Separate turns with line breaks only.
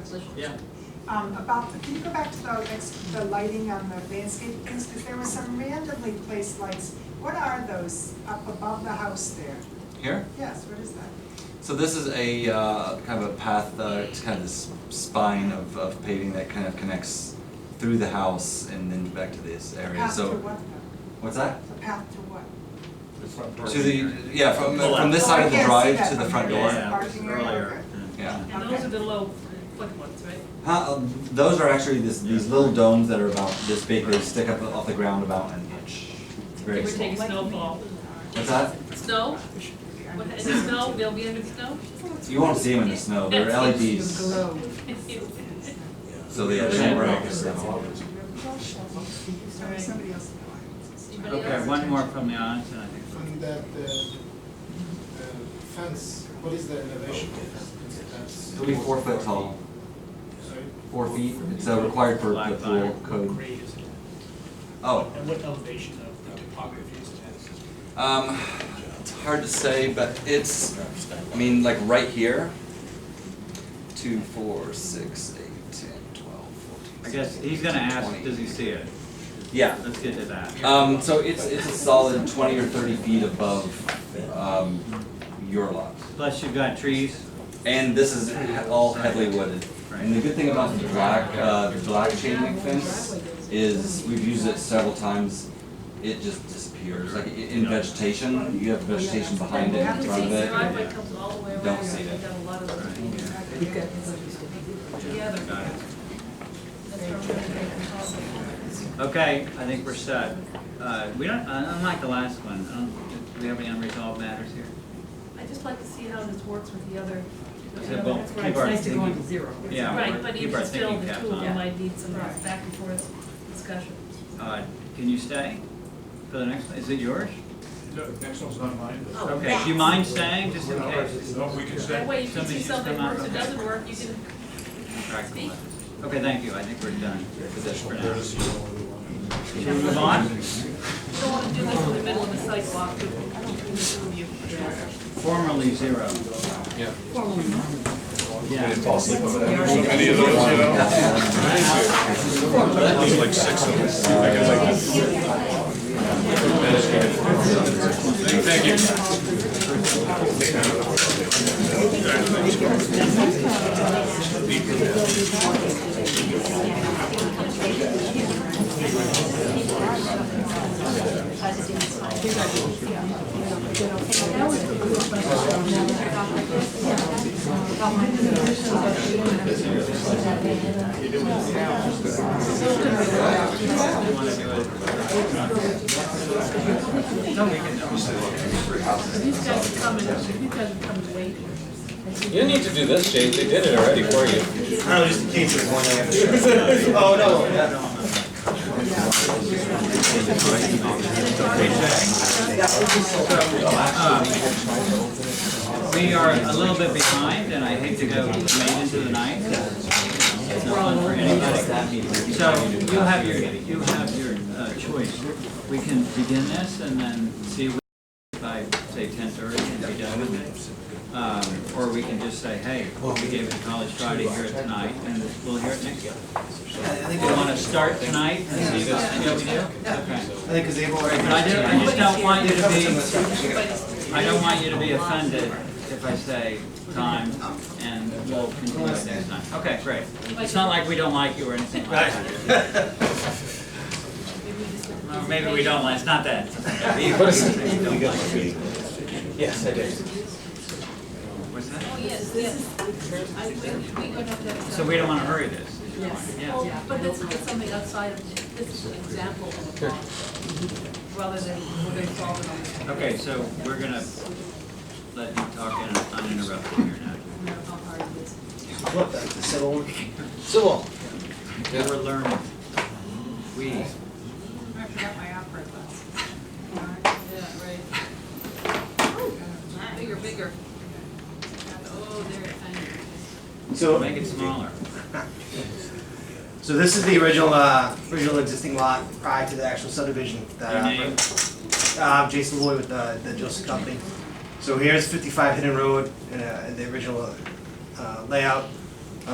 position.
Yeah.
Um, about, can you go back to the, ex- the lighting on the landscape things, because there were some randomly placed lights. What are those up above the house there?
Here?
Yes, what is that?
So this is a uh, kind of a path, uh, it's kind of this spine of, of paving that kind of connects through the house and then back to this area.
Path to
So
what though?
what's that?
The path to what?
The front door.
To the yeah from
Pull
from
out.
this
Oh,
side
I
of the
can't see
drive
that
to the
from
front
here.
door.
Yeah, which is
Parking area,
earlier.
Yeah.
And those are the low foot ones, right?
Huh, um, those are actually this, these little domes that are about this big. They stick up off the ground about an inch. It's
They
Very
were
small.
taking snowfall.
What's that?
Snow? What, is it snow? They'll be under the snow?
You won't see them in the snow. They're LEDs. So they they don't work.
Sorry, somebody else in the audience.
Anybody
Okay,
else?
one more from the audience, and I think.
From that, uh, uh, fence, what is the elevation of fence?
It'll be four foot tall,
Sorry?
four feet. It's uh, required for the pool
What
code.
grade is it?
Oh,
And what elevation of the topography is it?
Um, it's hard to say, but it's, I mean, like right here. Two, four, six, eight, ten, twelve, fourteen.
I guess he's gonna
16,
ask,
20.
does he see it?
Yeah.
Let's get to that.
Um, so it's, it's a solid twenty or thirty feet above, um, your lot.
Plus you've got trees,
And this is all heavily wooded. And the good thing about the black, uh, the black chain link fence is, we've used it several times, it just disappears. Like i- in vegetation, you have vegetation behind it, in front of
The
it.
driveway comes all the way around.
Don't see that.
We've got a lot of those. Yeah, they're-
got it.
that's where we're gonna take them.
Okay, I think we're set. Uh, we don't, uh, unlike the last one, I don't, do we have any unresolved matters here?
I'd just like to see how this works with the other.
I
you know,
said, well,
that's
keep
right.
our
It's nice to go
thinking-
into zero.
Yeah,
Right,
we're-
but
keep
even
our
still,
thinking
the
caps
two of them
on.
might need some
Right.
back and forth discussion.
Uh, can you stay for the next, one? is it yours?
No, next one's not mine, but.
Okay, do you mind staying, just in case?
No, we can
That way, if
Somebody
you see
should
something
come out
works or
of-
doesn't work, you can
Alright,
speak.
cool. Okay, thank you, I think we're done. with this for now. Should we
Should
move on?
You don't wanna do this in the middle of the sidewalk between the two of you.
Formerly zero. Yeah. Yeah.
You guys come and, you guys come and wait.
You didn't need to do this, Jay. They did it already for you.
Uh, We are a little bit behind, and I hate to go late into the night. It's not fun for anybody. So you have your, you have your uh, choice. We can begin this and then see if I say ten thirty and be done with it. Um, Or we can just say, hey, we gave it to College Friday here tonight, and we'll hear it next year. You want to start tonight and see this? Yeah, we do? Okay.
I think because they've
But
already.
I do- I just don't want you to be I don't want you to be offended if I say time and we'll continue it next time. Okay, great. It's not like we don't like you or anything like that. Well, Maybe we don't like, it's not that.
Yes, I did.
What's that?
Oh, yes, yes. I, we, we don't have to. have-
So we don't want to hurry this. is your point.
Well,
Yeah.
But this is something outside of, this is an example of a problem, rather than we're gonna solve it on the.
Okay, so we're gonna let you talk in uninterrupted here now.
No, how hard it is.
Civil.
We're learning. We.
I forgot my opera glass.
Yeah, right. Bigger, bigger. Oh, there, I
So,
Make it smaller.
so this is the original, uh, original existing lot prior to the actual subdivision. that,
Your
uh,
name?
Uh, Jason Lloyd with the, the Joseph Company. So here's fifty-five Hidden Road, and, uh, the original, uh, layout.